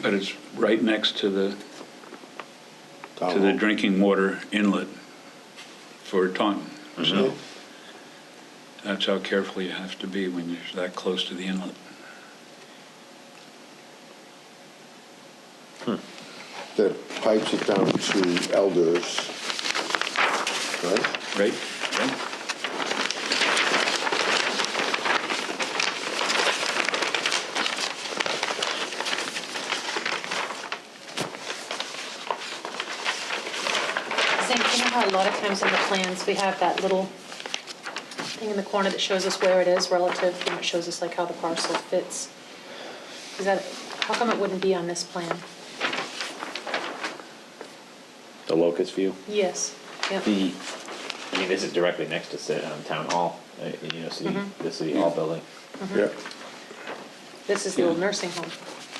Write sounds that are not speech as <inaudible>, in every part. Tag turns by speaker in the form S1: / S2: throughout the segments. S1: But it's right next to the, to the
S2: Town hall.
S1: drinking water inlet for Taunton.
S3: Mm-hmm.
S1: So that's how careful you have to be when you're that close to the inlet.
S2: The pipes are down to Elders, right?
S1: Right? Right?
S3: Zink, you know how a lot of times in the plans, we have that little thing in the corner that shows us where it is relative, and it shows us like how the parcel fits? Is that, how come it wouldn't be on this plan?
S4: The locust view?
S3: Yes, yep.
S4: The, I mean, this is directly next to Ci- um, Town Hall, uh, you know, city,
S3: Mm-hmm.
S4: the City Hall building.
S2: Yeah.
S3: This is the old nursing home.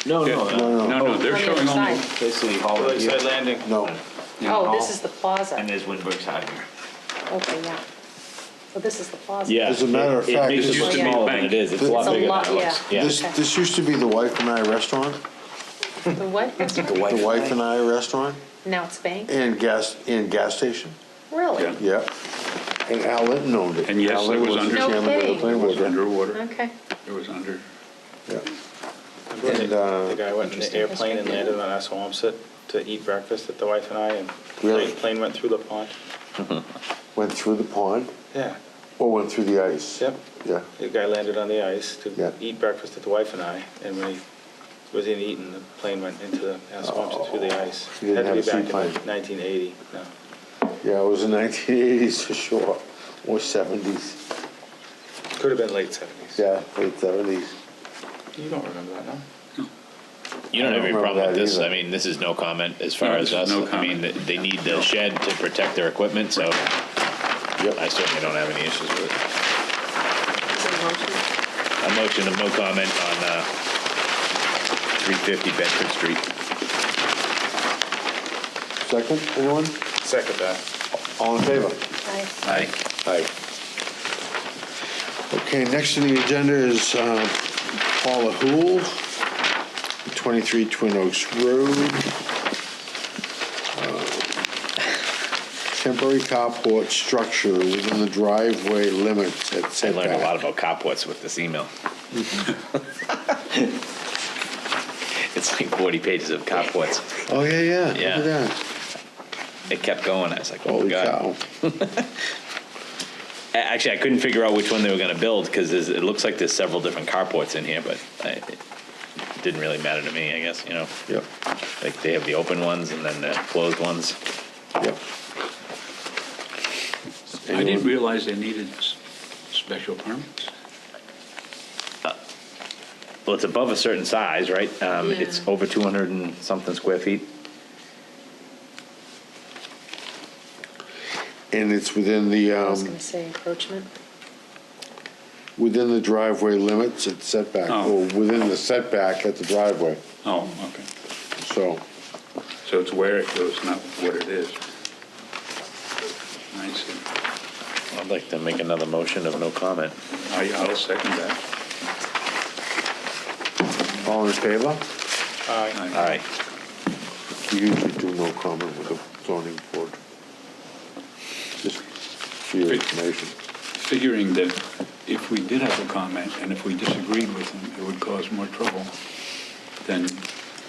S4: No, no,
S1: Yeah.
S4: no.
S2: No,
S1: No, no, they're
S3: On the other
S1: showing only,
S3: side.
S4: The City Hall. right here.
S5: Lakeside Landing.
S2: No,
S3: Oh, this is the plaza.
S4: And there's Windberg's Highway.
S3: Okay, yeah. So this is the plaza.
S4: Yeah.
S2: As a matter of
S4: it-
S2: fact,
S4: It makes
S2: this
S4: it
S3: used to be
S4: smaller than
S1: bank.
S4: it is. It's a lot
S3: It's a
S4: bigger
S3: lot-
S4: than it looks.
S3: yeah.
S4: Yeah.
S2: this, this used to be the Wife and I restaurant,
S3: The what? restaurant?
S2: the Wife and I restaurant,
S3: Now it's bank?
S2: and gas, and gas station,
S3: Really?
S2: yeah. And Al Linton owned it.
S1: And yes,
S2: Al
S1: it
S2: Linton
S1: was
S2: the
S1: under-
S3: No
S2: chairman of the
S3: kidding.
S2: planning
S1: it was
S2: board,
S1: underwater.
S3: Okay.
S1: It was under,
S2: yeah. And, uh,
S5: The guy went in the airplane and landed on us Assawamsett to eat breakfast at the wife and I, and
S2: Really?
S5: the plane went through the pond.
S2: Went through the pond,
S5: Yeah,
S2: or went through the ice?
S5: Yep.
S2: Yeah,
S5: the guy landed on the ice
S2: Yeah.
S5: to eat breakfast at the wife and I, and when he was in eating, the plane went into the Assawamsett through the ice.
S2: Oh. You didn't have a
S5: Had to be back in
S2: seaplane.
S5: 1980, no.
S2: yeah, it was the <laughs> nineteen eighties for sure, or seventies,
S5: Could have been late 70s.
S2: yeah, late seventies.
S5: You don't remember that, no?
S4: You don't
S2: I
S4: have
S2: don't
S4: any
S2: remember
S4: problem with
S2: that
S4: this.
S2: either.
S4: I mean, this is no comment as far
S1: No,
S4: as
S1: this is
S4: us.
S1: no
S4: I mean,
S1: comment.
S4: th- they need the shed to protect their equipment, so I
S2: Yep,
S4: certainly don't have any issues with it.
S3: Is it a motion?
S4: A motion of no comment on uh, 350 Bedford Street.
S2: second, anyone?
S5: Second that.
S2: All in favor?
S3: Aye.
S4: Aye.
S2: Aye. Okay, next on the agenda is uh, Paula Hool, 23 Twin Oaks Road. Uh, Temporary carport structure within the driveway limits at
S4: I
S2: setback.
S4: learned a lot about Copwitz with this email. It's like 40 pages of Copwitz.
S2: Oh, yeah, yeah, look
S4: Yeah.
S2: at that.
S4: It kept going. I was like, oh,
S2: Holy
S4: God.
S2: cow.
S4: A- Actually, I couldn't figure out which one they were going to build because it looks like there's several different carports in here, but I, it didn't really matter to me, I guess, you know?
S2: Yep,
S4: Like they have the open ones and then the closed ones.
S2: yep.
S1: I didn't
S2: Anyone?
S1: realize they needed s- special permits.
S4: Well, it's above a certain size, right? Um, It's
S3: Yeah.
S4: over 200 and something square feet.
S2: And it's within the,
S3: I was
S2: um,
S3: gonna say encroachment.
S2: within the driveway limits at setback,
S1: Oh.
S2: or within the setback at the driveway,
S1: Oh, okay.
S2: so.
S1: So it's where it goes, not what it is. I see.
S4: I'd like to make another motion of no comment.
S1: I- I'll second that.
S2: All in favor?
S5: Aye.
S4: All right.
S2: We usually do no comment with the zoning board. Just for your information.
S1: Figuring that if we did have a comment and if we disagreed with them, it would cause more trouble than,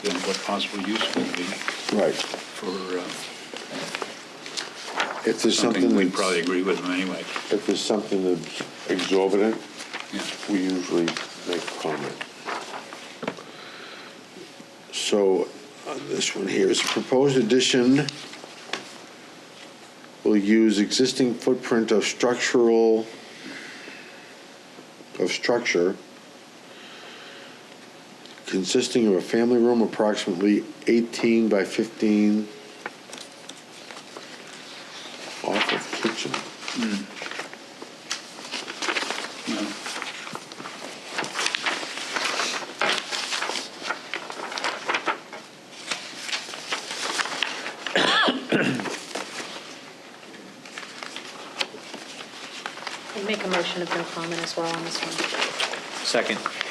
S1: than what possible use would be
S2: Right.
S1: for uh,
S2: If there's something
S1: something we'd probably
S2: that's,
S1: agree with them anyway.
S2: if there's something that's exorbitant,
S1: Yeah.
S2: we usually make a comment. So, on this one here, is proposed addition will use existing footprint of structural, of structure consisting of a family room approximately 18 by 15 off of kitchen.
S1: No.
S3: I'd make a motion of no comment as well on this one.
S4: Second.